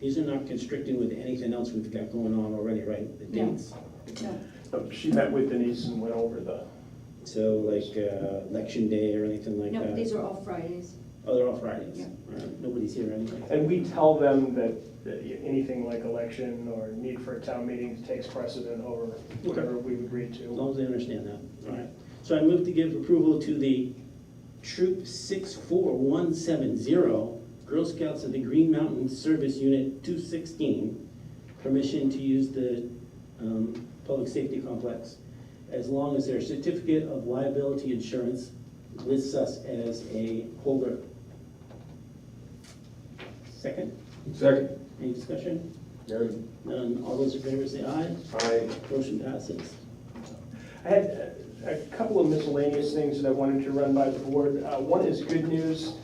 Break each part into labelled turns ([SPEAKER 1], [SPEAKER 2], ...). [SPEAKER 1] these are not constricting with anything else we've got going on already, right? The
[SPEAKER 2] No.
[SPEAKER 1] dates.
[SPEAKER 2] No.
[SPEAKER 3] So She met with Denise and went over the,
[SPEAKER 1] So like uh, election day or anything like
[SPEAKER 2] No,
[SPEAKER 1] that?
[SPEAKER 2] these are all Fridays.
[SPEAKER 1] Oh, they're all Fridays.
[SPEAKER 2] Yeah.
[SPEAKER 1] All right, Nobody's here anyway.
[SPEAKER 3] and we tell them that that anything like election or need for a town meeting takes precedent over whatever we've agreed
[SPEAKER 1] As
[SPEAKER 3] to.
[SPEAKER 1] long as they understand that, all right. So I move to give approval to the Troop 64170, Girl Scouts of the Green Mountain Service Unit 216, permission to use the um, public safety complex as long as their certificate of liability insurance lists us as a holder. Second,
[SPEAKER 4] Second.
[SPEAKER 1] any discussion?
[SPEAKER 4] None.
[SPEAKER 1] None, all those in favor say aye.
[SPEAKER 4] Aye.
[SPEAKER 1] Motion passes.
[SPEAKER 3] I had a a couple of miscellaneous things that I wanted to run by the board. Uh, One is good news.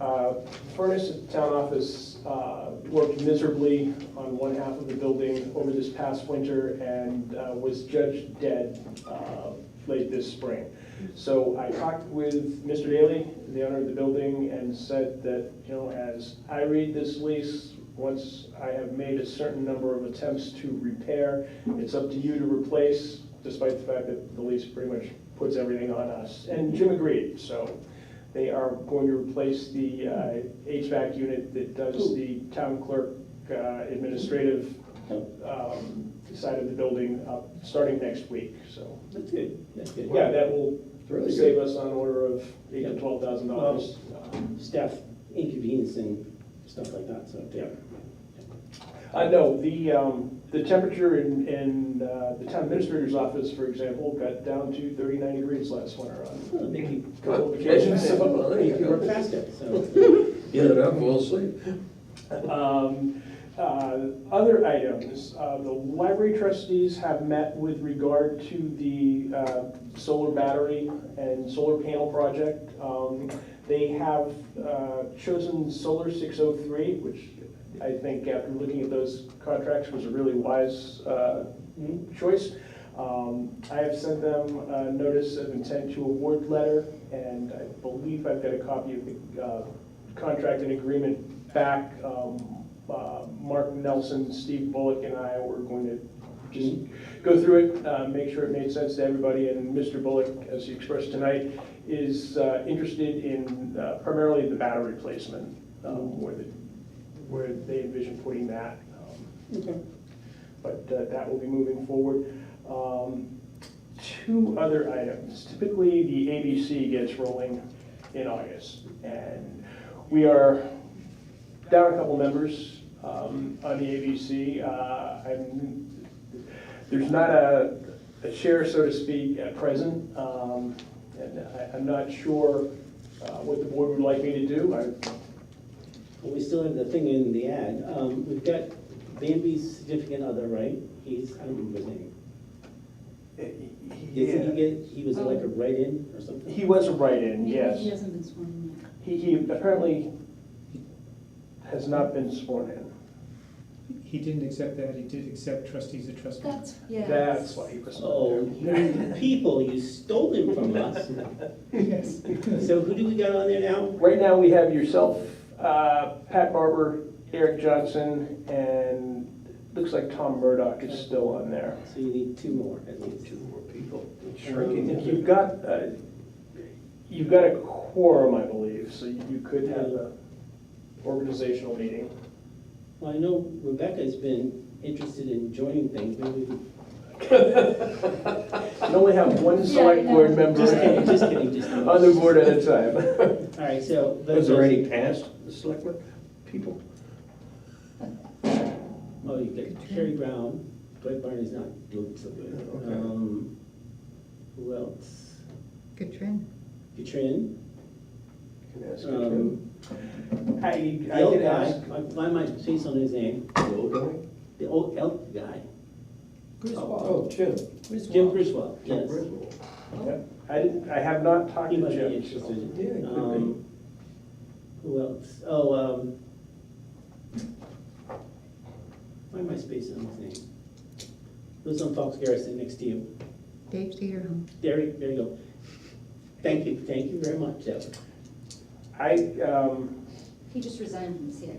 [SPEAKER 3] Uh, Furnace at the town office uh, worked miserably on one half of the building over this past winter and uh, was judged dead uh, late this spring. So I talked with Mr. Daly, the owner of the building, and said that, you know, as I read this lease, once I have made a certain number of attempts to repair, it's up to you to replace, despite the fact that the lease pretty much puts everything on us. And Jim agreed, so they are going to replace the uh, HVAC unit that does the town clerk uh, administrative um, side of the building, uh, starting next week, so.
[SPEAKER 1] That's good, that's good.
[SPEAKER 3] Yeah, that will
[SPEAKER 4] It's really
[SPEAKER 3] save
[SPEAKER 4] good.
[SPEAKER 3] us on order of eight to twelve thousand dollars.
[SPEAKER 1] staff inconvenience and stuff like that, so.
[SPEAKER 3] Yeah. I know, Uh, the, um, the temperature in, in uh, the town administrator's office, for example, got down to thirty-nine degrees last winter on.
[SPEAKER 1] Well, Maybe
[SPEAKER 3] a
[SPEAKER 4] Come
[SPEAKER 3] couple
[SPEAKER 4] on,
[SPEAKER 3] of
[SPEAKER 4] imagine
[SPEAKER 3] occasions.
[SPEAKER 4] sitting on there, you
[SPEAKER 1] we're
[SPEAKER 4] go.
[SPEAKER 1] past it, so.
[SPEAKER 4] Get it up, fall asleep.
[SPEAKER 3] Um, uh, Other items, uh, the library trustees have met with regard to the uh, solar battery and solar panel project. Um, They have uh, chosen Solar 603, which I think after looking at those contracts was a really wise uh, choice. Um, I have sent them a notice of intent to award letter, and I believe I've got a copy of the uh, contract and agreement back. Um, uh, Mark Nelson, Steve Bullock, and I were going to just go through it, uh, make sure it made sense to everybody, and Mr. Bullock, as he expressed tonight, is uh, interested in uh, primarily the battery replacement, um, where the, where they envision putting that. um, but uh, that will be moving forward. Um, Two other items. Typically, the ABC gets rolling in August, and we are down a couple members um, on the ABC. Uh, I'm- There's not a a chair, so to speak, at present, um, and I- I'm not sure uh, what the board would like me to do. I-
[SPEAKER 1] Well, we still have the thing in the ad. Um, we've got Bambi's significant other, right? He's, I don't remember his name. Did he get, he was elected right in or something?
[SPEAKER 3] Um, He was a write-in, yes.
[SPEAKER 2] He hasn't been sworn in yet.
[SPEAKER 3] He, he apparently has not been sworn in.
[SPEAKER 5] He didn't accept that, he did accept trustees of trust.
[SPEAKER 2] That's, yeah.
[SPEAKER 3] That's why he was
[SPEAKER 1] Oh,
[SPEAKER 3] not
[SPEAKER 1] you
[SPEAKER 3] there.
[SPEAKER 1] people, you stole him from us.
[SPEAKER 5] Yes.
[SPEAKER 1] So who do we got on there now?
[SPEAKER 3] Right now, we have yourself, uh, Pat Barber, Eric Johnson, and looks like Tom Murdoch is still on there.
[SPEAKER 1] So you need two more at least. Um,
[SPEAKER 4] Two more people.
[SPEAKER 3] If you've got, uh, you've got a quorum, I believe, so you could have a organizational meeting.
[SPEAKER 1] Well, I know Rebecca's been interested in joining things, maybe we could-
[SPEAKER 3] You only have one
[SPEAKER 2] Yeah, I
[SPEAKER 3] select
[SPEAKER 2] know.
[SPEAKER 3] board member
[SPEAKER 1] Just kidding, just kidding, just kidding.
[SPEAKER 3] on the board at a time.
[SPEAKER 1] All right, so.
[SPEAKER 4] Was there any past selectmen, people?
[SPEAKER 1] Oh, you got Terry Brown, Dwight Barney's not doing so good.
[SPEAKER 4] Okay.
[SPEAKER 1] Um, Who else?
[SPEAKER 6] Good trend.
[SPEAKER 1] Katrin,
[SPEAKER 3] Can I ask you
[SPEAKER 1] um,
[SPEAKER 3] to- I,
[SPEAKER 1] the
[SPEAKER 3] I
[SPEAKER 1] old
[SPEAKER 3] can
[SPEAKER 1] guy,
[SPEAKER 3] ask.
[SPEAKER 1] I find my face on his name,
[SPEAKER 4] The old guy?
[SPEAKER 1] the old elk guy.
[SPEAKER 4] Oh, Jim.
[SPEAKER 1] Jim Griswold,
[SPEAKER 4] Jim
[SPEAKER 1] yes.
[SPEAKER 4] Griswold.
[SPEAKER 3] Yep. I didn't, I have not talked
[SPEAKER 1] He
[SPEAKER 3] to
[SPEAKER 1] might be
[SPEAKER 3] Jim.
[SPEAKER 1] interested.
[SPEAKER 3] so-
[SPEAKER 4] Yeah, it could
[SPEAKER 1] Um, Who else? Oh, um, why am I spacing on his name? Lives on Fox Garrison next to you.
[SPEAKER 6] Dave Cedarholm.
[SPEAKER 1] There, you- there you go. Thank you, thank you very much, Deb.
[SPEAKER 3] I, um,
[SPEAKER 2] He just resigned from the CIA.